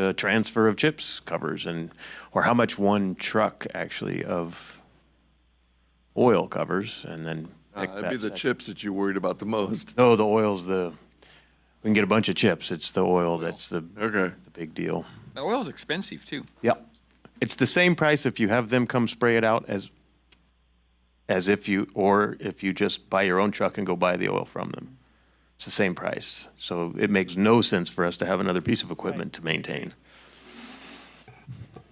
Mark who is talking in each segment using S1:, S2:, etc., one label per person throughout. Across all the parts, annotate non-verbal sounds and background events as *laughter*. S1: the transfer of chips covers and, or how much one truck actually of oil covers and then
S2: Uh,
S1: pick
S2: That'd be
S1: that
S2: the
S1: section.
S2: chips that you're worried about the most.
S1: No, the oil's the, we can get a bunch of chips. It's the oil that's the,
S2: *laughs* Okay.
S1: the big deal.
S3: That oil's expensive too.
S1: Yep. It's the same price if you have them come spray it out as, as if you, or if you just buy your own truck and go buy the oil from them. It's the same price. So it makes no sense for us to have another piece of equipment to maintain.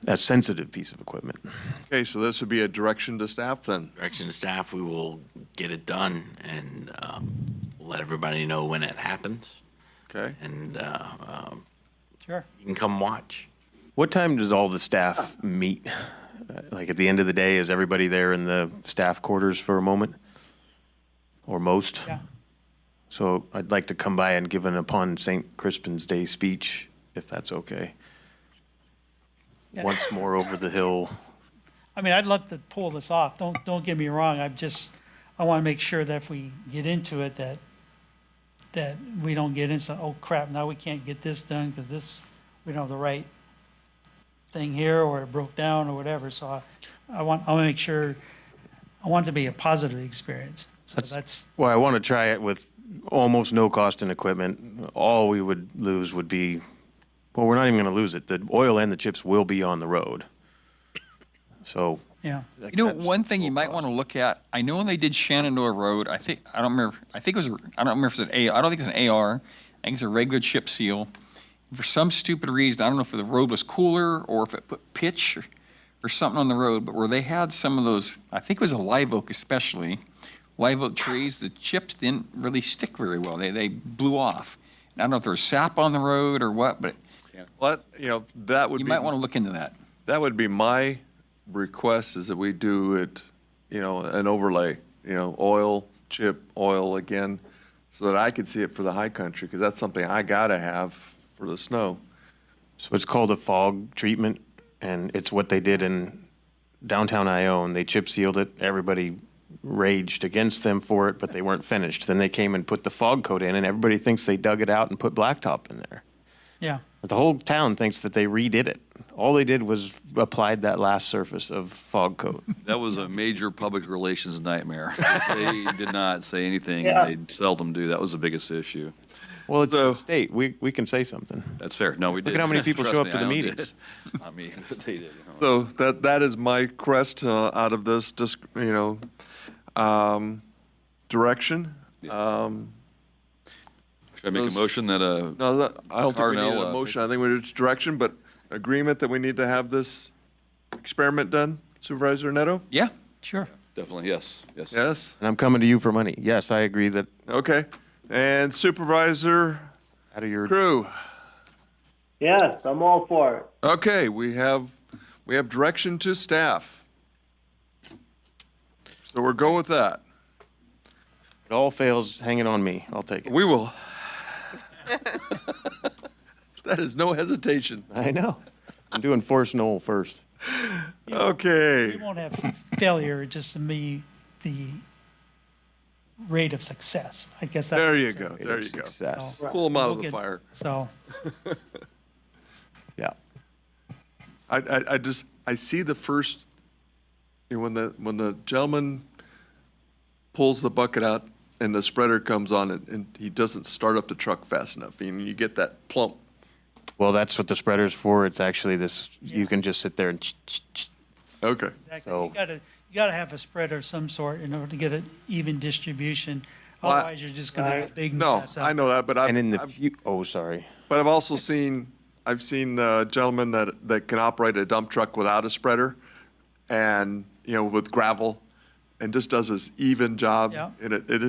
S1: A sensitive piece of equipment.
S2: Okay, so this would be a direction to staff then.
S4: direction of staff, we will get it done and um, let everybody know when it happens.
S2: Okay.
S4: And uh, um,
S5: Sure.
S4: you can come watch.
S1: What time does all the staff meet? Uh, Like at the end of the day, is everybody there in the staff quarters for a moment? Or most?
S5: Yeah.
S1: So I'd like to come by and give an upon St. Crispin's Day speech, if that's okay.
S5: Yeah.
S1: Once more over the hill.
S5: I mean, I'd love to pull this off. Don't, don't get me wrong. I'm just, I want to make sure that if we get into it, that, that we don't get into, oh crap, now we can't get this done because this, we don't have the right thing here or it broke down or whatever. So I, I want, I want to make sure, I want it to be a positive experience. So
S1: That's-
S5: that's,
S1: *laughs* Well, I want to try it with almost no cost in equipment. All we would lose would be, well, we're not even going to lose it. The oil and the chips will be on the road. So.
S5: yeah.
S1: like,
S3: You know,
S1: that's
S3: one thing you
S1: low
S3: might
S1: cost.
S3: want to look at. I know when they did Shenandoah Road, I think I don't remember. I think it was. a- I don't remember if it's an A. I don't think it's an AR. I think it's a regular chip seal. For some stupid reason, I don't know if the road was cooler or if it put pitch or, or something on the road, but where they had some of those, I think it was a live oak especially, live oak trees. The chips didn't really stick very well. They they blew off. And I don't know if there was sap on the road or what, but
S2: Well, that- you know, that would
S3: you
S2: be,
S3: might want to look into that.
S2: that would be my request is that we do it, you know, an overlay, you know, oil, chip, oil again, so that I could see it for the high country, because that's something I gotta have for the snow.
S1: So it's called a fog treatment, and it's what they did in downtown Ione. They chip sealed it. Everybody raged against them for it, but they weren't finished. Then they came and put the fog coat in, and everybody thinks they dug it out and put blacktop in there.
S5: Yeah.
S1: But the whole town thinks that they redid it. All they did was applied that last surface of fog coat.
S6: *laughs* That was a major public
S1: *laughs*
S6: relations nightmare. They did not say anything, and they seldom do. That was the biggest issue.
S1: Well, it's the
S2: So-
S1: state. We, we can say something.
S6: That's fair. No, we did.
S1: at how
S6: *laughs*
S1: many people
S6: Trust
S1: show up
S6: me,
S1: to the
S6: *laughs* I owned
S1: meetings.
S6: it. Not me, but they did.
S2: So that, that is my crest uh, out of this, dis- you know, um, direction. Um,
S6: Should I make a motion that, uh,
S2: No, that- I don't think we need
S6: Carnell,
S2: a
S6: uh,
S2: motion. I think we need a direction, but agreement that we need to have this experiment done. Supervisor Neto?
S3: Yeah.
S5: Sure.
S6: definitely, yes, yes.
S2: Yes?
S1: And I'm coming to you for money. Yes, I agree that
S2: Okay. And Supervisor
S1: out of your
S2: Crew?
S7: Yes, I'm all for it.
S2: Okay, we have, we have direction to staff. So we're going with that.
S1: it all fails hanging on me. I'll take it.
S2: We will. That is no hesitation.
S1: I know. I'm doing Force Knoll first.
S2: Okay.
S5: We won't have failure, just to me, the rate of success. I guess that's.
S2: There you go. There you go.
S1: Success.
S2: Pull them out
S5: We'll
S2: of the
S5: get-
S2: fire.
S5: So.
S1: Yeah.
S2: I, I, I just, I see the first, you know, when the, when the gentleman pulls the bucket out and the spreader comes on and, and he doesn't start up the truck fast enough, and you get that plump.
S1: Well, that's what the spreader's for. It's actually this, you can just sit there and ch- ch- ch-
S2: Okay.
S5: Exactly.
S1: So-
S5: You gotta, you gotta have a spread of some sort in order to get an even distribution.
S2: Well, I-
S5: Otherwise, you're just gonna have a big
S2: No,
S5: mess.
S2: I know that, but I've,
S1: and in the
S2: I've-
S1: few, oh, sorry.
S2: but I've also seen, I've seen uh, gentlemen that, that can operate a dump truck without a spreader and, you know, with gravel and just does this even job.
S5: Yeah.
S2: And it, it,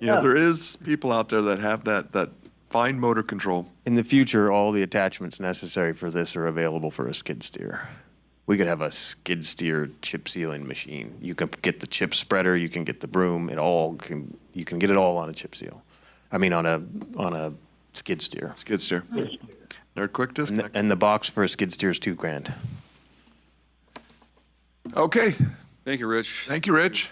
S2: you know, there is people out there that have that, that fine motor control.
S1: In the future, all the attachments necessary for this are available for a skid steer. We could have a skid steer chip sealing machine. You can get the chip spreader, you can get the broom, it all can, you can get it all on a chip seal. I mean, on a, on a skid steer.
S2: Skid steer. They're quick
S1: And the-
S2: disconnect.
S1: And the box for a skid steer is two grand.
S2: Okay,
S6: Thank you, Rich.
S2: thank you, Rich.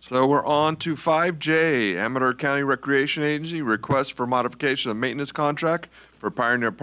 S2: So we're on to 5J, Amador County Recreation Agency, request for modification of maintenance contract for Pioneer Park